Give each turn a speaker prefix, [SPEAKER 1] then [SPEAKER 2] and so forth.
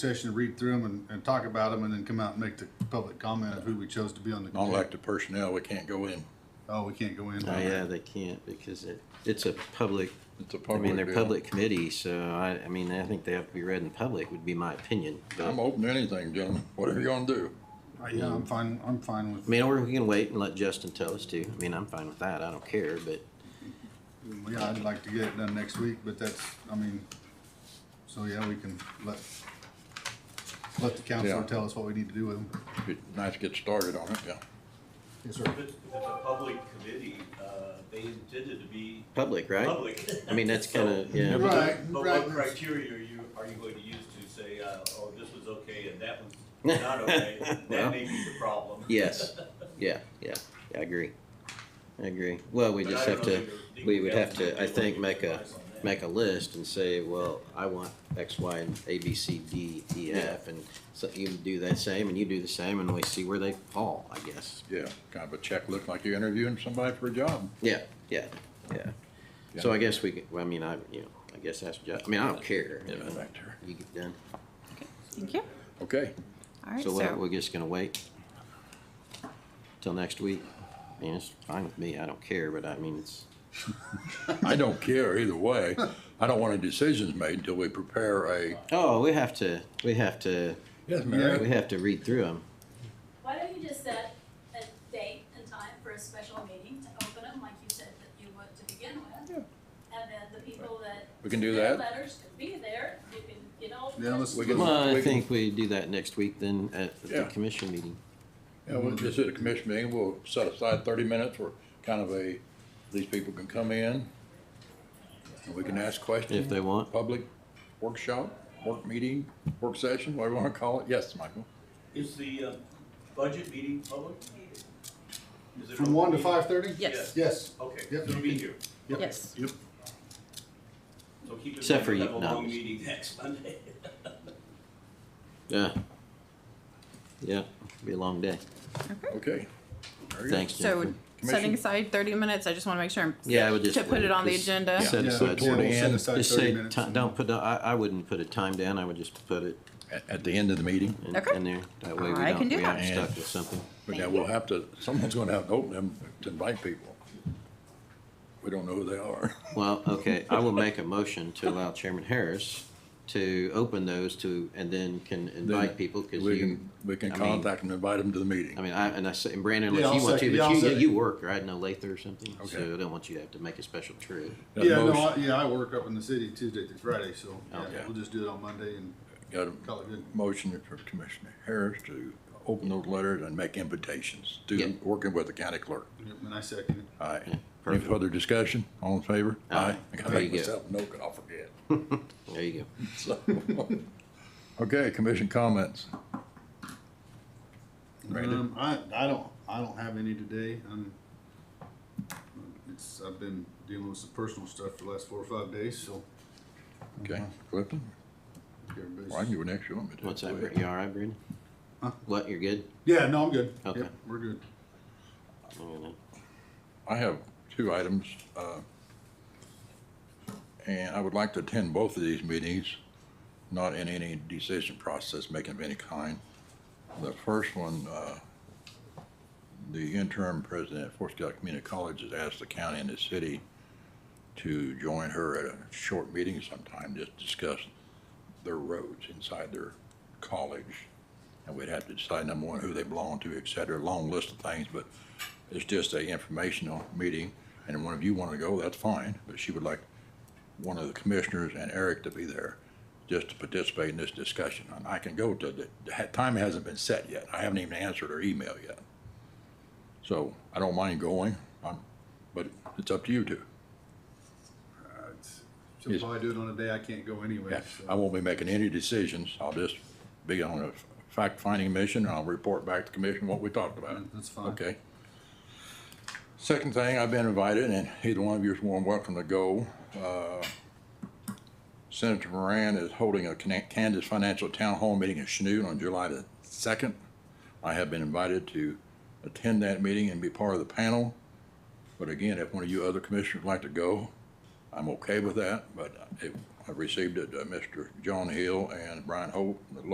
[SPEAKER 1] session, read through them and, and talk about them and then come out and make the public comment of who we chose to be on the. committee.
[SPEAKER 2] Non-elected personnel, we can't go in.
[SPEAKER 1] Oh, we can't go in.
[SPEAKER 3] Oh, yeah, they can't because it, it's a public,
[SPEAKER 2] It's a
[SPEAKER 3] I mean,
[SPEAKER 2] public
[SPEAKER 3] they're
[SPEAKER 2] deal.
[SPEAKER 3] public committee, so I, I mean, I think they have to be read in public would be my opinion. but-
[SPEAKER 2] I'm open to anything, gentlemen, whatever you want to do.
[SPEAKER 1] Uh, Yeah, I'm fine, I'm fine with,
[SPEAKER 3] I mean, or we can wait and let Justin tell us to. I mean, I'm fine with that. I don't care, but
[SPEAKER 1] yeah, I'd like to get it done next week, but that's, I mean, so yeah, we can let, let the counselor
[SPEAKER 2] Yeah.
[SPEAKER 1] tell us what we need to do with them.
[SPEAKER 2] Be nice to get started on it, yeah.
[SPEAKER 1] Yes, sir.
[SPEAKER 4] If it's if it's a public committee, uh, they intended to be
[SPEAKER 3] public, right?
[SPEAKER 4] public.
[SPEAKER 3] I mean, that's kind of, yeah.
[SPEAKER 1] Right.
[SPEAKER 4] But
[SPEAKER 1] right.
[SPEAKER 4] what criteria are you, are you going to use to say, uh, oh, this was okay and that was not okay?
[SPEAKER 3] Well.
[SPEAKER 4] That may be the problem.
[SPEAKER 3] Yes, yeah, yeah, yeah, I agree. I agree. Well, we
[SPEAKER 4] But
[SPEAKER 3] just
[SPEAKER 4] I don't
[SPEAKER 3] have
[SPEAKER 4] know
[SPEAKER 3] to,
[SPEAKER 4] that your
[SPEAKER 3] we would
[SPEAKER 4] legal
[SPEAKER 3] have
[SPEAKER 4] counsel
[SPEAKER 3] to, I
[SPEAKER 4] would
[SPEAKER 3] think,
[SPEAKER 4] give
[SPEAKER 3] make a,
[SPEAKER 4] advice on that.
[SPEAKER 3] make a list and say, well, I want X, Y, and A, B, C, D, E, F, and so you do that same, and you do the same, and we see where they fall, I guess.
[SPEAKER 2] Yeah, kind of a check, look like you're interviewing somebody for a job.
[SPEAKER 3] Yeah, yeah, yeah. So I guess we, could- I mean, I, you know, I guess that's just, I mean, I don't care. you
[SPEAKER 2] Yeah,
[SPEAKER 3] know.
[SPEAKER 2] back there.
[SPEAKER 3] You get done.
[SPEAKER 5] Thank you.
[SPEAKER 2] Okay,
[SPEAKER 5] All right,
[SPEAKER 3] So what, we're
[SPEAKER 5] so,
[SPEAKER 3] just gonna wait till next week? I mean, it's fine with me. I don't care, but I mean, it's.
[SPEAKER 2] I don't care either way. I don't want any decisions made until we prepare a,
[SPEAKER 3] Oh, we have to, we have to,
[SPEAKER 2] yes,
[SPEAKER 3] we
[SPEAKER 2] Mary?
[SPEAKER 3] have to read through them.
[SPEAKER 6] Why don't you just set a date and time for a special meeting to open them, like you said that you would to begin with? And then the people that.
[SPEAKER 2] We can do
[SPEAKER 6] their
[SPEAKER 2] that.
[SPEAKER 6] Letters can be there, you can, you know.
[SPEAKER 1] Yeah, let's-
[SPEAKER 6] just-
[SPEAKER 1] can-
[SPEAKER 3] Well, I
[SPEAKER 2] we can-
[SPEAKER 3] think we do that next week then at the
[SPEAKER 2] Yeah.
[SPEAKER 3] commission meeting.
[SPEAKER 2] Yeah, we'll just at a commission meeting, we'll set aside thirty minutes for kind of a, these people can come in. And we can ask questions.
[SPEAKER 3] If they want.
[SPEAKER 2] Public workshop, work meeting, work session, whatever you want to call it. Yes, Michael?
[SPEAKER 4] Is the uh, budget meeting public? Is it
[SPEAKER 1] From one to
[SPEAKER 4] open?
[SPEAKER 1] five thirty?
[SPEAKER 5] yes,
[SPEAKER 1] Yes.
[SPEAKER 4] Okay,
[SPEAKER 1] Yep.
[SPEAKER 4] you'll be here.
[SPEAKER 1] Yep.
[SPEAKER 5] yes.
[SPEAKER 1] Yep.
[SPEAKER 4] So keep in
[SPEAKER 3] Except
[SPEAKER 4] mind,
[SPEAKER 3] for
[SPEAKER 4] we
[SPEAKER 3] you,
[SPEAKER 4] have a long
[SPEAKER 3] no.
[SPEAKER 4] meeting next Monday.
[SPEAKER 3] Yeah. Yeah, be a long day.
[SPEAKER 2] Okay. Very good.
[SPEAKER 3] Thanks,
[SPEAKER 5] So
[SPEAKER 3] Jennifer.
[SPEAKER 2] Commission?
[SPEAKER 5] setting aside thirty minutes, I just want to make sure. I'm-
[SPEAKER 3] Yeah, I would just
[SPEAKER 5] To put
[SPEAKER 3] wait.
[SPEAKER 5] it on the
[SPEAKER 3] Just-
[SPEAKER 5] agenda.
[SPEAKER 3] Set
[SPEAKER 1] Yeah,
[SPEAKER 3] aside,
[SPEAKER 1] yeah,
[SPEAKER 2] toward the
[SPEAKER 1] we'll set
[SPEAKER 2] end.
[SPEAKER 1] aside
[SPEAKER 3] just
[SPEAKER 1] 30
[SPEAKER 3] say,
[SPEAKER 1] minutes
[SPEAKER 3] ti-
[SPEAKER 1] and-
[SPEAKER 3] don't put, a- I, I wouldn't put a time down. I would just put it
[SPEAKER 2] At, at the end of the meeting,
[SPEAKER 3] in,
[SPEAKER 5] Okay.
[SPEAKER 3] in there. That way we
[SPEAKER 5] I
[SPEAKER 3] don't,
[SPEAKER 5] can do
[SPEAKER 3] we aren't
[SPEAKER 2] that.
[SPEAKER 3] stuck with something.
[SPEAKER 2] but now we'll have to, someone's going to have to open them to invite people. We don't know who they are.
[SPEAKER 3] Well, okay, I will make a motion to allow Chairman Harris to open those to, and then can invite people, cause
[SPEAKER 2] We
[SPEAKER 3] you.
[SPEAKER 2] can, we can
[SPEAKER 3] I mean-
[SPEAKER 2] contact and invite them to the meeting.
[SPEAKER 3] I mean, I, and I say, and Brandon,
[SPEAKER 1] Yeah,
[SPEAKER 3] unless you
[SPEAKER 1] I'll
[SPEAKER 3] want to,
[SPEAKER 1] second- yeah,
[SPEAKER 3] but
[SPEAKER 1] I'll
[SPEAKER 3] you,
[SPEAKER 1] second.
[SPEAKER 3] you work, right? No Lather or something,
[SPEAKER 2] Okay.
[SPEAKER 3] so I don't want you to have to make a special trip.
[SPEAKER 2] Got a
[SPEAKER 1] Yeah, no, I,
[SPEAKER 2] motion-
[SPEAKER 1] yeah, I work up in the city Tuesday through Friday, so, yeah,
[SPEAKER 3] Okay.
[SPEAKER 1] we'll just do it on Monday and
[SPEAKER 2] Got a
[SPEAKER 1] call it good.
[SPEAKER 2] motion for Commissioner Harris to open those letters and make invitations to,
[SPEAKER 3] Yeah.
[SPEAKER 2] working with the county clerk.
[SPEAKER 1] Yep, And I second it.
[SPEAKER 2] Aye.
[SPEAKER 3] Yeah,
[SPEAKER 2] Any
[SPEAKER 3] perfect.
[SPEAKER 2] further discussion? All in favor?
[SPEAKER 3] Aye.
[SPEAKER 2] I gotta
[SPEAKER 3] There
[SPEAKER 2] make
[SPEAKER 3] you go.
[SPEAKER 2] myself a note, 'cause I'll forget.
[SPEAKER 3] There you go.
[SPEAKER 2] So, Okay, commission comments. Brandon?
[SPEAKER 1] Um, I, I don't, I don't have any today. Um, it's, I've been dealing with some personal stuff for the last four or five days, so.
[SPEAKER 2] Okay, Clifton,
[SPEAKER 1] everybody's-
[SPEAKER 2] well, I can do next, you want me to?
[SPEAKER 3] What's that, Bri- you all right, Brandon?
[SPEAKER 1] Huh?
[SPEAKER 3] What, you're good?
[SPEAKER 1] Yeah, no, I'm good.
[SPEAKER 3] Okay.
[SPEAKER 1] Yep, We're good.
[SPEAKER 3] I'm gonna-
[SPEAKER 2] I have two items, uh, and I would like to attend both of these meetings, not in any decision process making of any kind. The first one, uh, the interim president at Fort Scott Community College has asked the county and the city to join her at a short meeting sometime, just discuss their roads inside their college. And we'd have to decide, number one, who they belong to, et cetera, long list of things, but it's just a informational meeting, and if one of you want to go, that's fine, but she would like one of the commissioners and Eric to be there just to participate in this discussion. And I can go to, the the time hasn't been set yet. I haven't even answered her email yet. So I don't mind going, i but it's up to you two.
[SPEAKER 1] Uh, it's- She'll probably do it on a day I can't go anyway,
[SPEAKER 2] I
[SPEAKER 1] so.
[SPEAKER 2] won't be making any decisions. I'll just be on a fact-finding mission, and I'll report back to the commission what we talked about.
[SPEAKER 1] That's fine.
[SPEAKER 2] Okay. Second thing, I've been invited, and either one of you is more than welcome to go. Uh, Senator Moran is holding a Can- Kansas Financial Town Hall meeting in Chanute on July the second. I have been invited to attend that meeting and be part of the panel. But again, if one of you other commissioners would like to go, I'm okay with that, but it- I received it, uh, Mr. John Hill and Brian Hope, the